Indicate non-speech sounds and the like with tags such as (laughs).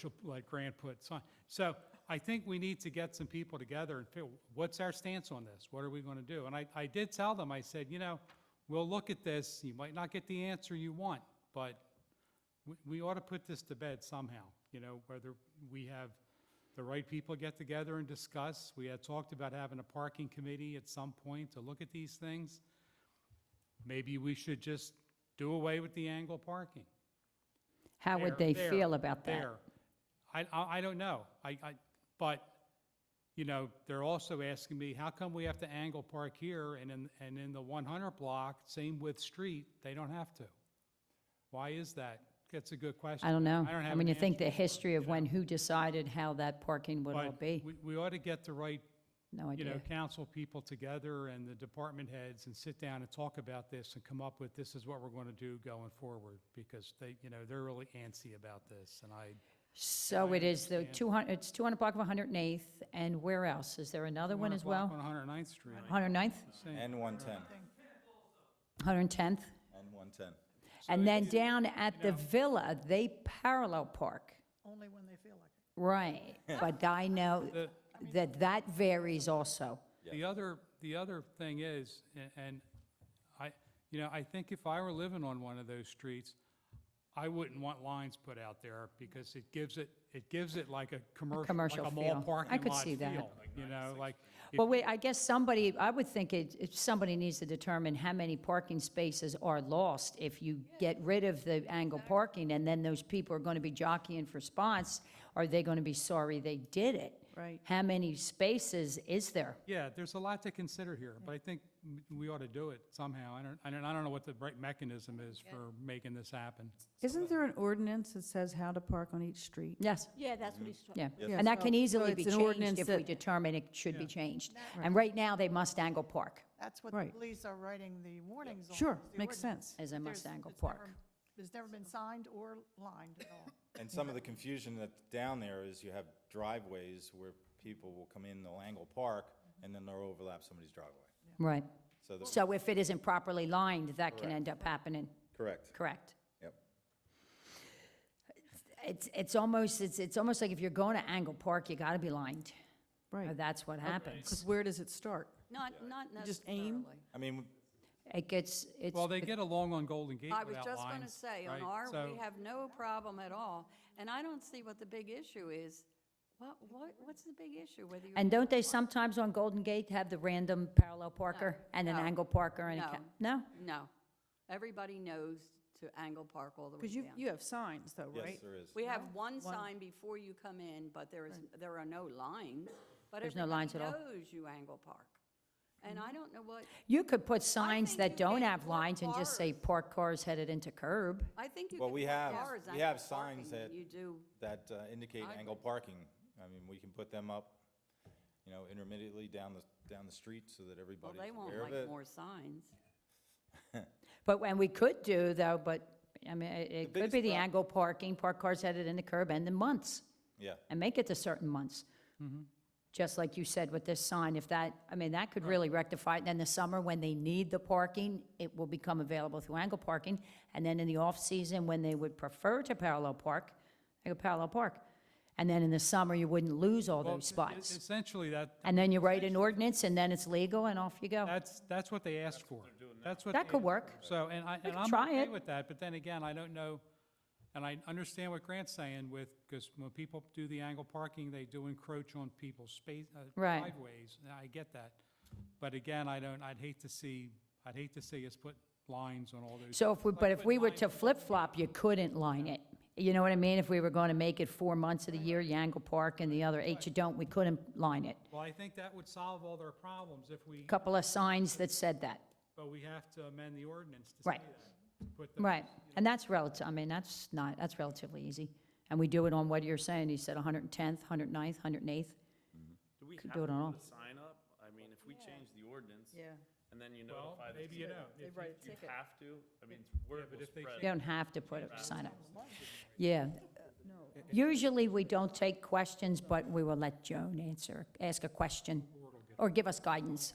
she'll let Grant put, sign. so I think we need to get some people together and feel, what's our stance on this? What are we going to do? And I, I did tell them, I said, you know, we'll look at this, you might not get the answer you want, but we, we ought to put this to bed somehow, you know, whether we have the right people get together and discuss. We had talked about having a parking committee at some point to look at these things. Maybe we should just do away with the angle parking. How would There, they there, feel about that? There. I, I, I don't know. I, I, but, you know, they're also asking me, how come we have to angle park here and in, and in the one hundred block, same with street, they don't have to? Why is that? That's a good question. I don't know. I don't I have mean, an you think answer the history of when, who decided how that parking would all But be? we, we ought to get the right, No you know, idea. council people together and the department heads and sit down and talk about this and come up with, this is what we're gonna do going forward. Because they, you know, they're really antsy about this and I, So it is the 200, it's 200 block of 108th, and where else? Is there another one 100 as block well? On 109th Street. 109th, Same. And 110, 110th? and 110. And then down at the Villa, they parallel park. Only when they feel like it. Right, but I know (laughs) The- that that varies also. The other, the other thing is, a- and I, you know, I think if I were living on one of those streets, I wouldn't want lines put out there because it gives it, it gives it like a commercial, like commercial a feel. mall I parking could lot see that. feel, you know, like. if- Well, wait, I guess somebody, I would think it, if somebody needs to determine how many parking spaces are lost if you get rid of the angle parking, and then those people are going to be jockeying for spots, are they going to be sorry they did it? Right. How many spaces is there? Yeah, there's a lot to consider here, but I think m- we ought to do it somehow. I don't, I don't, I don't know what the right mechanism is for making this happen. Isn't there an ordinance that says how to park on each street? Yes, Yeah, that's what he's yeah, talking. Yes. and that can So- easily so be it's an changed ordinance if we that- determine it should be changed. And right now, they must angle park, That's what the Right. police are writing the warnings on. Sure, is the makes ordinance. sense. as they There's- must angle it's never- park. It's never been signed or lined at all. And some of the confusion that's down there is you have driveways where people will come in, they'll angle park, and then they'll overlap somebody's driveway. Right. So, the- So if it isn't properly lined, that can end up happening, correct, correct? yep. It's, it's almost, it's, it's almost like if you're going to Angle Park, you gotta be lined. Or Right. That's what Because happens. where does it start? Not, not Just aim? necessarily. I mean, It gets, it's, Well, they get along on Golden Gate I without lines. was just going to say, on right? our, So- we have no problem at all, and I don't see what the big issue is. What, what, what's the big issue, whether you? and don't they sometimes on Golden Gate have the random parallel parker and an no, angle parker and a, ca- no? No, everybody knows to angle park all the way Because you, down. you have signs though, yes, right? there is. We have one sign before you come in, but there is, there are no lines. But There's no lines at all. everybody Knows you angle park, and I don't know what, You could put signs think that you don't can have put lines and just say cars. park cars headed into curb. I think you Well, can we put have- cars we have angle parking, signs that- You do, That uh, indicate angle parking. I mean, we can put them up, you know, intermittently down the, down the street so that well, everybody's they won't aware of like it. more signs. But, and we could do though, but, I mean, it- it could biggest be the prob- angle parking, park cars headed into curb and the months. Yeah, and make it to certain months. Mm-hmm. Just like you said with this sign, if that, I mean, that could really rectify it. Then the summer, when they need the parking, it will become available through angle parking. And then in the off-season, when they would prefer to parallel park, they could parallel park. And then in the summer, you wouldn't lose all Well, those e- spots. Essentially, that, And then you write an ordinance, and then it's legal, and off you go. That's, that's what they asked for. That's what. That they- could work. So, and I, and could I'm try okay it. with that, but then again, I don't know, and I understand what Grant's saying with, because when people do the angle parking, they do encroach on people's space, uh, Right. driveways. and I get that. But again, I don't, I'd hate to see, I'd hate to see us put lines on all those. So if we, but if we were to flip-flop, you couldn't line it. You know what I mean? If we were going to make it four months of the year, you angle park, and the other eight you don't, we couldn't line it. Well, I think that would solve all their problems if we, couple of signs that said that, but we have to amend the ordinance to say Right. that. to put the- right. And that's relative, I mean, that's not, that's relatively easy. And we do it on what you're saying, you said 110th, 109th, 108th. Do we Could have do to it put all. a sign up? I mean, if we change the ordinance Yeah. and then you Well, notify the. maybe you don't. If you- You have to, I mean, it's word but will if they You spread. don't have to put a sign up. Yeah. Usually, we don't take questions, but we will let Joan answer, ask a question, or give us guidance.